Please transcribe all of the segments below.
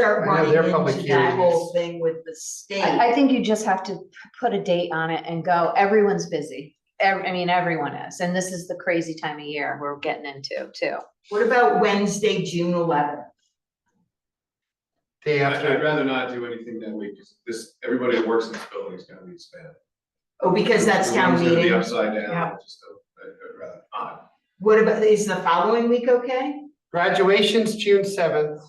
start I know running they're probably into that whole curious. thing with the state. I, I think you just have to p- put a date on it and go, everyone's busy. Ev- I mean, everyone is, and this is the crazy time of year we're getting into too. What about Wednesday, June eleventh? Day I'd I'd after, rather not do anything that week, because this, everybody that works in this building is gonna be expanded. Oh, because that's town Everyone's gonna be meeting. upside down, Yeah. I just, don't- I'd I'd rather not. What about, is the following week okay? graduation's June seventh.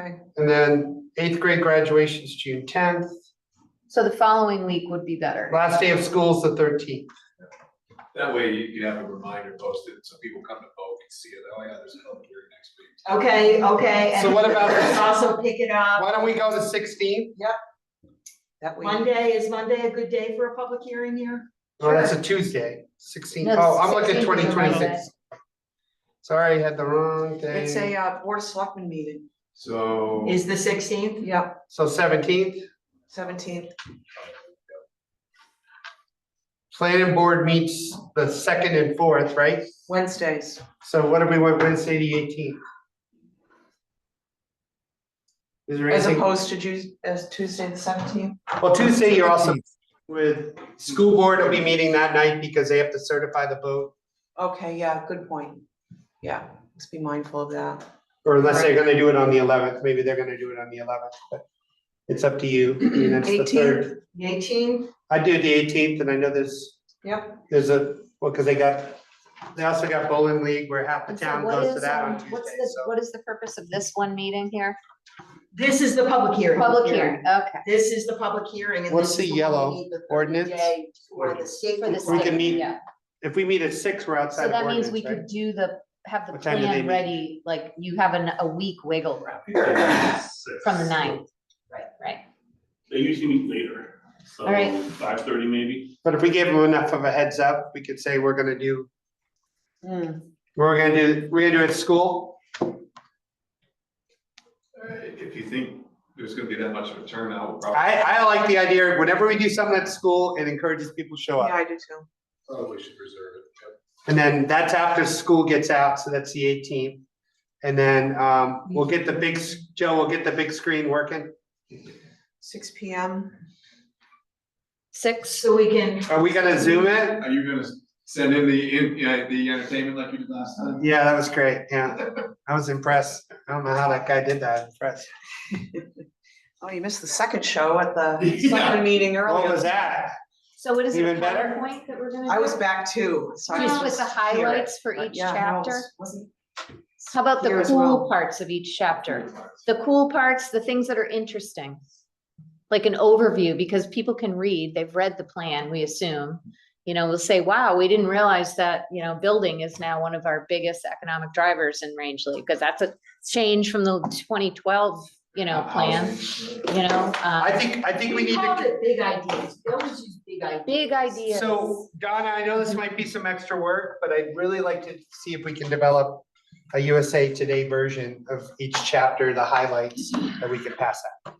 Okay. And then eighth grade graduation's June tenth, So the following week would be better. last day of school's the thirteenth. That way you can have a reminder posted, so people come to vote and see it, oh yeah, there's a public hearing next week. Okay, okay. and So what about- let's Also pick it up. Why don't we go to sixteenth? That way, Monday, is Monday a good day for a public hearing here? Oh, that's a Tuesday, 16th. No, Oh, I'm looking 16th is a twenty Monday. twenty-six. Sorry, had the wrong day. it's a uh, board of selectmen meeting, So, Is the sixteenth? yep, So seventeenth, seventeenth, planning board meets the second and fourth, right? Wednesdays. So what do we want Wednesday the eighteenth? Is there As anything? opposed to Ju- as Tuesday the seventeenth, Well, Tuesday, you're also with, school board will be meeting that night because they have to certify the vote. okay, yeah, good point, yeah, let's be mindful of that. Or unless they're gonna do it on the eleventh, maybe they're gonna do it on the eleventh, but it's up to you. I mean, that's the third. Eighteenth? I do the eighteenth and I know there's. Yep. There's a, well, cause they got, they also got bowling league where half the And so town what goes to is, that on um, What's Tuesday, this, so. what is the purpose of this one meeting here? This is the public hearing. Public hearing, okay. This is the public hearing. and What's this the is when we yellow need the 30 ordinance? day For the state. For the We state, can meet yeah. If we meet at six, we're So outside of that means ordinance, we right? could do the, have the What time do they plan meet? ready, like you have an, a week wiggle room from the ninth. Right. Right. They usually meet later, so All right. five thirty maybe. But if we gave them enough of a heads up, we could say we're gonna do, Hmm. we're gonna do, we're gonna do it at school. uh, if you think there's gonna be that much of a turnout, we'll probably, I, I like the idea, of whenever we do something at school, it encourages people to show Yeah, up. I do too, probably should reserve it. Yep. And then that's after school gets out, so that's the eighteenth. And then, um, we'll get the big, s- Joe, we'll get the big screen working. six P M, Six, So we can, Are we gonna zoom it? Are you gonna send in the, in- yeah, the entertainment like you did last time? Yeah, that was great, yeah. I was impressed. I don't know how that guy did that, I was impressed. oh, you missed the second show at the Yeah. selectmen meeting earlier. What was that? so what is it, a Even better? PowerPoint that we're gonna do? I was back too, so I was Just with the just here, highlights for but each yeah, no, chapter? wasn't- How about here the as cool well. parts of each chapter? The cool parts, the things that are interesting. Like an overview, because people can read, they've read the plan, we assume. You know, they'll say, wow, we didn't realize that, you know, building is now one of our biggest economic drivers in Rangeley, because that's a change from the twenty twelve, you know, plan, Housing. you know? I uh, think, I think we we need called to, it big ideas. We always use big ideas. Big ideas. so Donna, I know this might be some extra work, but I'd really like to see if we can develop a USA Today version of each chapter, the highlights that we can pass out.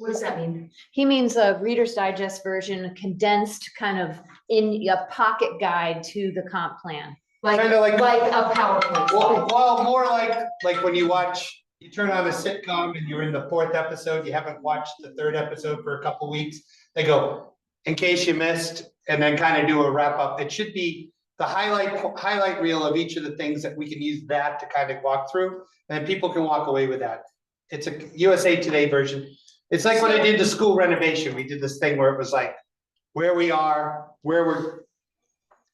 What does that mean? He means a Reader's Digest version condensed kind of in a pocket guide to the comp plan. Like, Kinda like- like a PowerPoint Well, slide. well, more like, like when you watch, you turn on a sitcom and you're in the fourth episode, you haven't watched the third episode for a couple weeks. They go, in case you missed, and then kind of do a wrap up. It should be the highlight, highlight reel of each of the things that we can use that to kind of walk through. And then people can walk away with that. It's a USA Today version. It's like when I did the school renovation, we did this thing where it was like, where we are, where we're,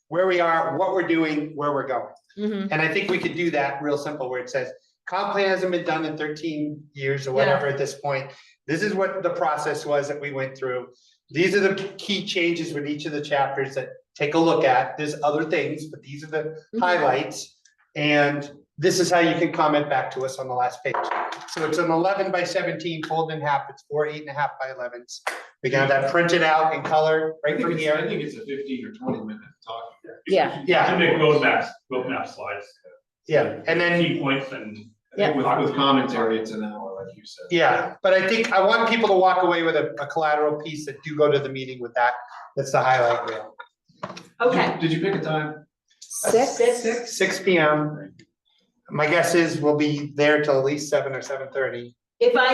where we are, what we're doing, where we're going. Mhm. And I think we could do that real simple where it says, comp plan hasn't been done in thirteen years or whatever at this point. This is what the process was that we went through. These are the key changes with each of the chapters that take a look at. There's other things, but these are the Mm-hmm. highlights. And this is how you can comment back to us on the last page. So it's an eleven by seventeen, folded in half. It's four eight and a half by elevens. We can have that printed out in color I right think from it's, I here. think it's a fifteen or twenty minute talk. Yeah. Yeah. And make roadmaps, roadmap slides. Yeah, and then Key points and. I think With, with commentary, it's an hour, like you said. Yeah, but I think I want people to walk away with a, a collateral piece that do go to the meeting with that. That's the highlight reel. Okay. Did you pick a time? Six. Six P M. My guess is we'll be there till at least seven or seven thirty. If I